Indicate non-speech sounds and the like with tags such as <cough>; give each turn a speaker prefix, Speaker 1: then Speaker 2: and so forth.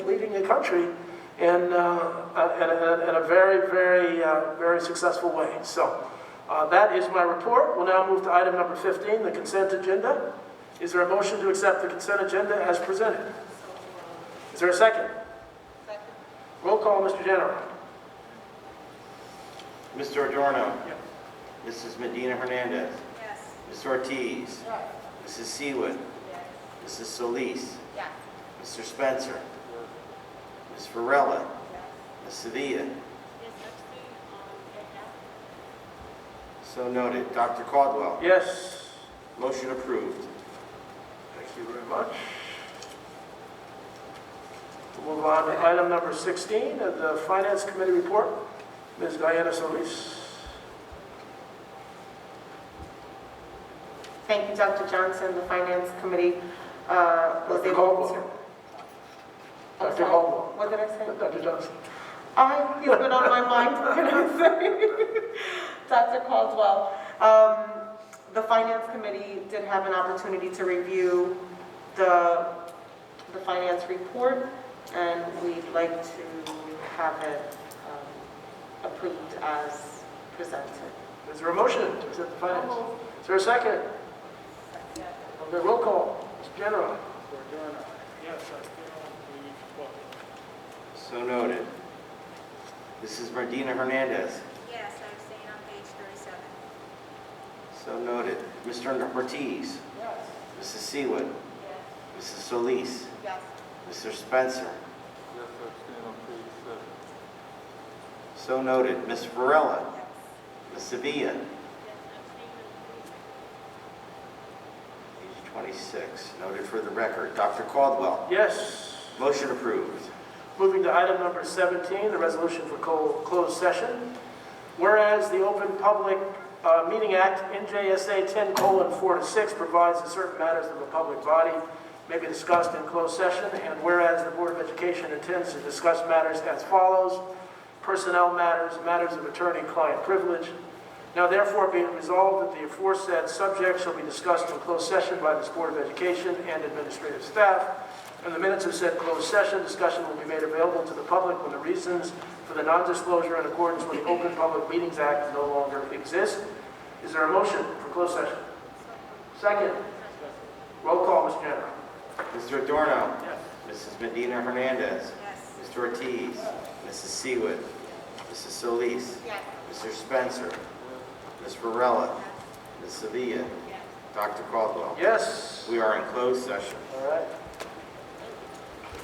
Speaker 1: leading the country in, uh, in, a, in a very, very, uh, very successful way. So uh, that is my report. We'll now move to item number 15, the consent agenda. Is there a motion to accept the consent agenda as presented? Is there a second? Roll call, Mr. General.
Speaker 2: Mr. Adorno.
Speaker 1: Yes.
Speaker 2: Mrs. Medina Hernandez.
Speaker 3: Yes.
Speaker 2: Ms. Ortiz.
Speaker 3: Yes.
Speaker 2: Mrs. Seawood. Mrs. Solis.
Speaker 3: Yes.
Speaker 2: Mr. Spencer. Ms. Varela. Ms. Sevilla.
Speaker 3: Yes, actually, um, it has.
Speaker 2: So noted. Dr. Caldwell.
Speaker 1: Yes.
Speaker 2: Motion approved.
Speaker 1: Thank you very much. We'll move on to item number 16, of the Finance Committee report. Ms. Diana Solis.
Speaker 4: Thank you, Dr. Johnson. The Finance Committee uh, was
Speaker 1: Dr.
Speaker 4: able
Speaker 1: Caldwell.
Speaker 4: to... I'm
Speaker 1: Dr.
Speaker 4: sorry,
Speaker 1: Caldwell.
Speaker 4: What did I say?
Speaker 1: Dr. Johnson.
Speaker 4: I, he's been on my mind, <laughs> what can I say? Dr. Caldwell, um, the Finance Committee did have an opportunity to review the, the finance report, and we'd like to have it um, approved as presented.
Speaker 1: Is there a motion to accept the finance? Is there a second? Okay, roll call, Mr. General.
Speaker 5: Yes, I feel
Speaker 2: So noted. Mrs. Medina Hernandez.
Speaker 3: Yes, I'm staying on page thirty-seven.
Speaker 2: So noted. Mr. Ortiz.
Speaker 3: Yes.
Speaker 2: Mrs. Seawood.
Speaker 3: Yes.
Speaker 2: Mrs. Solis.
Speaker 3: Yes.
Speaker 2: Mr. Spencer.
Speaker 5: the, yes, I've seen on page seven.
Speaker 2: So noted. Ms. Varela.
Speaker 3: Yes.
Speaker 2: Ms. Sevilla.
Speaker 3: Yes, I'm staying on page.
Speaker 2: Page 26, noted for the record. Dr. Caldwell,
Speaker 1: Yes.
Speaker 2: motion approved.
Speaker 1: Moving to item number 17, the resolution for co- closed session. Whereas the Open Public uh, Meeting Act, NJSA 10:4 to 6, provides that certain matters of a public body may be discussed in closed session, and whereas the Board of Education intends to discuss matters as follows: personnel matters, matters of attorney-client privilege. Now therefore be it resolved that the aforesaid subject shall be discussed in closed session by this Board of Education and administrative staff. And the minutes of said closed session, discussion will be made available to the public when the reasons for the non-disclosure in accordance with the Open Public Meetings Act no longer exist. Is there a motion for closed session? Second. Roll call, Mr. General.
Speaker 2: Mr. Adorno,
Speaker 1: Yes.
Speaker 2: Mrs. Medina Hernandez,
Speaker 3: Yes.
Speaker 2: Mr. Ortiz, Mrs. Seawood, Mrs. Solis,
Speaker 3: Yes.
Speaker 2: Mr. Spencer, Ms. Varela, Ms. Sevilla,
Speaker 3: Yes.
Speaker 2: Dr. Caldwell.
Speaker 1: Yes.
Speaker 2: We are in closed session.
Speaker 1: All right.